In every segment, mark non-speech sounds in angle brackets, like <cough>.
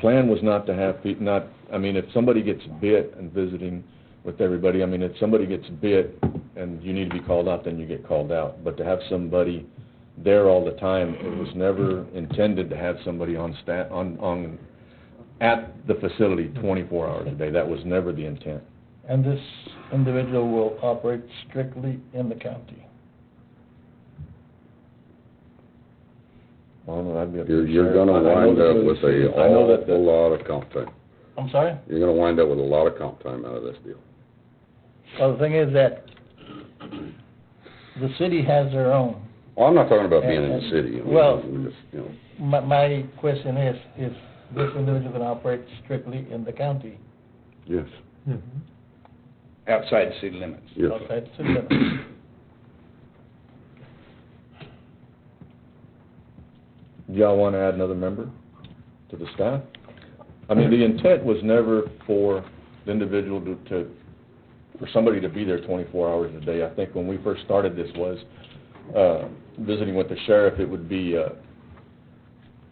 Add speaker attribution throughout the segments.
Speaker 1: plan was not to have people, not, I mean, if somebody gets bit and visiting with everybody, I mean, if somebody gets bit and you need to be called out, then you get called out. But to have somebody there all the time, it was never intended to have somebody on sta, on, on, at the facility twenty-four hours a day. That was never the intent.
Speaker 2: And this individual will operate strictly in the county.
Speaker 1: I don't know, I'd be up to
Speaker 3: You're, you're
Speaker 1: Sheriff.
Speaker 3: gonna
Speaker 1: I- I know
Speaker 3: wind
Speaker 1: that
Speaker 3: up
Speaker 1: the
Speaker 3: with
Speaker 1: city-
Speaker 3: a
Speaker 1: I know that the-
Speaker 3: awful lot of comp time.
Speaker 2: I'm sorry?
Speaker 3: You're gonna wind up with a lot of comp time out of this deal.
Speaker 2: Well, the thing is that the city has their own.
Speaker 3: Well, I'm not talking about being in the
Speaker 2: And-
Speaker 3: city. I mean,
Speaker 2: well-
Speaker 3: I'm just, you know,
Speaker 2: My, my question is, is this individual gonna operate strictly in the county?
Speaker 3: Yes,
Speaker 2: Mm-hmm.
Speaker 4: outside city limits.
Speaker 3: yes.
Speaker 2: Outside the city limits?
Speaker 1: Do y'all want to add another member to the staff? I mean, the intent was never for the individual to, to, for somebody to be there twenty-four hours a day. I think when we first started this was, uh, visiting with the sheriff, it would be, uh,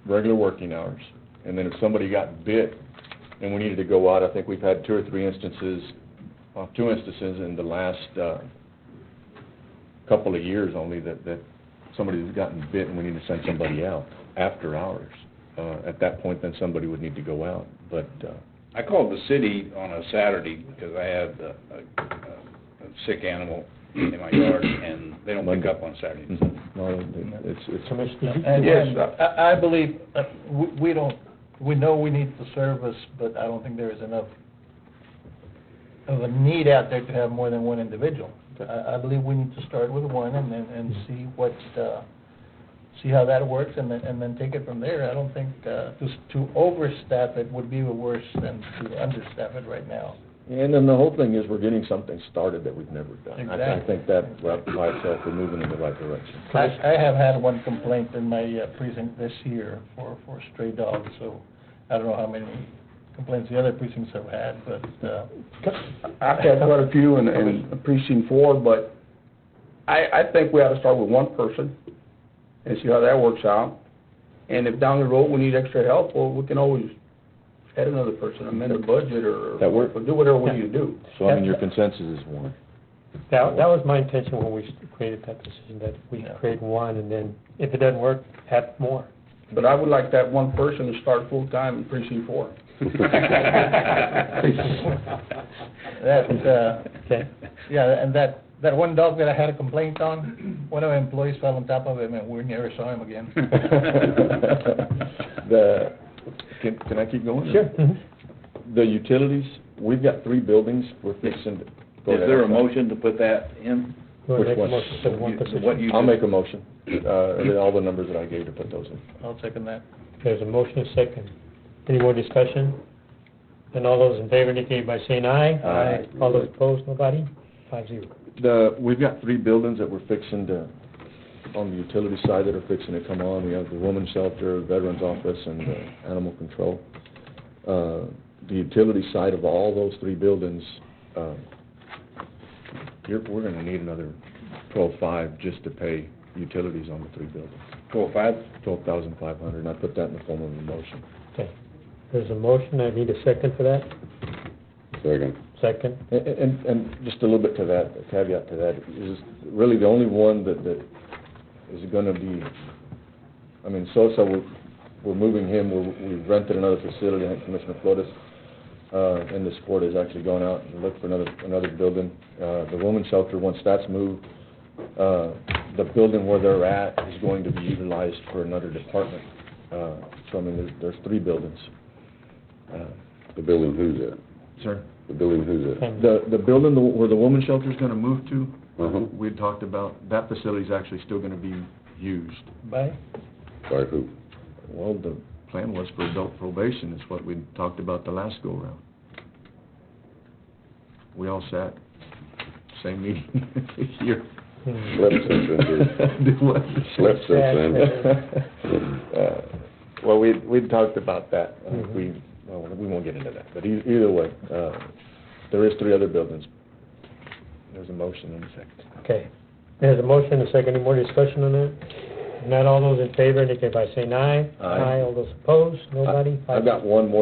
Speaker 1: regular working hours. And then if somebody got bit and we needed to go out, I think we've had two or three instances, uh, two instances in the last, uh, couple of years only that, that somebody's gotten bit and we need to send somebody out after hours. Uh, at that point, then somebody would need to go out, but, uh,
Speaker 4: I called the city on a Saturday because I had a, a, a sick animal in my yard and they don't pick up on Saturdays.
Speaker 1: no, it's, it's.
Speaker 2: And-
Speaker 4: Yes,
Speaker 2: and
Speaker 4: I-
Speaker 2: I, I believe, uh, we, we don't, we know we need the service, but I don't think there is enough of a need out there to have more than one individual. I, I believe we need to start with one and then, and see what, uh, see how that works and then, and then take it from there. I don't think, uh, just to overstaff it would be worse than to understaff it right now.
Speaker 1: And then the whole thing is we're getting something started that we've never done. I- I
Speaker 2: Exactly.
Speaker 1: think that by itself, we're moving in the right direction.
Speaker 2: I, I have had one complaint in my uh, precinct this year for, for stray dogs, so I don't know how many complaints the other precincts have had, but, uh,
Speaker 5: I've had quite a few in, in precinct four, but I, I think we ought to start with one person and see how that works out. And if down the road we need extra help, well, we can always add another person, amend the budget or
Speaker 1: That work?
Speaker 5: or do whatever we need to do.
Speaker 1: So I mean, your consensus is one.
Speaker 6: That, that was my intention when we created that decision, that we
Speaker 2: Yeah.
Speaker 6: create one, and then if it doesn't work, add more.
Speaker 5: But I would like that one person to start full-time in precinct four.
Speaker 2: that, uh,
Speaker 6: Okay.
Speaker 2: <laughs> yeah, and that, that one dog that I had a complaint on, one of my employees fell on top of him and we never saw him again.
Speaker 5: <laughs>
Speaker 1: The, can, can I keep going?
Speaker 6: Mhm.
Speaker 1: The utilities, we've got three buildings we're fixing. to-
Speaker 4: Is there a motion to put that in?
Speaker 6: You wanna
Speaker 1: Which
Speaker 6: make a
Speaker 1: one?
Speaker 6: motion to one
Speaker 4: You-
Speaker 6: position?
Speaker 4: what you-
Speaker 1: I'll make a motion, uh, all the numbers that I gave to put those in.
Speaker 2: I'll second that.
Speaker 6: There's a motion, a second. Any more discussion? And all those in favor indicate by saying aye.
Speaker 1: Aye.
Speaker 6: All those opposed, nobody? Five zero.
Speaker 1: The, we've got three buildings that we're fixing to, on the utility side that are fixing to come on. We have the women's shelter, veterans office, and uh, animal control. Uh, The utility side of all those three buildings, uh, you're, we're gonna need another twelve-five just to pay utilities on the three buildings.
Speaker 4: Four, five?
Speaker 1: Twelve thousand five hundred, and I put that in the form of a motion.
Speaker 6: Okay. There's a motion, I need a second for that.
Speaker 3: <laughs> Second.
Speaker 6: Second.
Speaker 1: And- And, and just a little bit to that, a caveat to that, is really the only one that, that is gonna be, I mean, Sosa, we're, we're moving him, we're, we rented another facility, I think Commissioner Flores, uh, in this court has actually gone out and looked for another, another building. Uh, the women's shelter, once that's moved, uh, the building where they're at is going to be utilized for another department. Uh, so I mean, there's, there's three buildings. Uh,
Speaker 3: The building who's at?
Speaker 1: Sir?
Speaker 3: The building who's at?
Speaker 6: And
Speaker 1: The, the building the- where the woman's shelter's gonna move to,
Speaker 3: Uh-huh.
Speaker 1: we had talked about, that facility's actually still gonna be used.
Speaker 2: Bye.
Speaker 3: By who?
Speaker 1: Well, the plan was for adult probation, is what we talked about the last go-around. We all sat, same meeting <laughs> here.
Speaker 6: hmm,
Speaker 3: Slip
Speaker 1: <laughs>
Speaker 3: sensor.
Speaker 1: Do what?
Speaker 3: Slip sensor.
Speaker 1: Uh, Well, we, we talked about that, I think we, well, we won't get into that, but e- either way, uh, there is three other buildings. There's a motion and a second.
Speaker 6: Okay. There's a motion, a second. Any more discussion on that? If not, all those in favor indicate by saying aye.
Speaker 1: Aye.
Speaker 6: All those opposed, nobody?
Speaker 1: I've
Speaker 6: Five
Speaker 1: got one more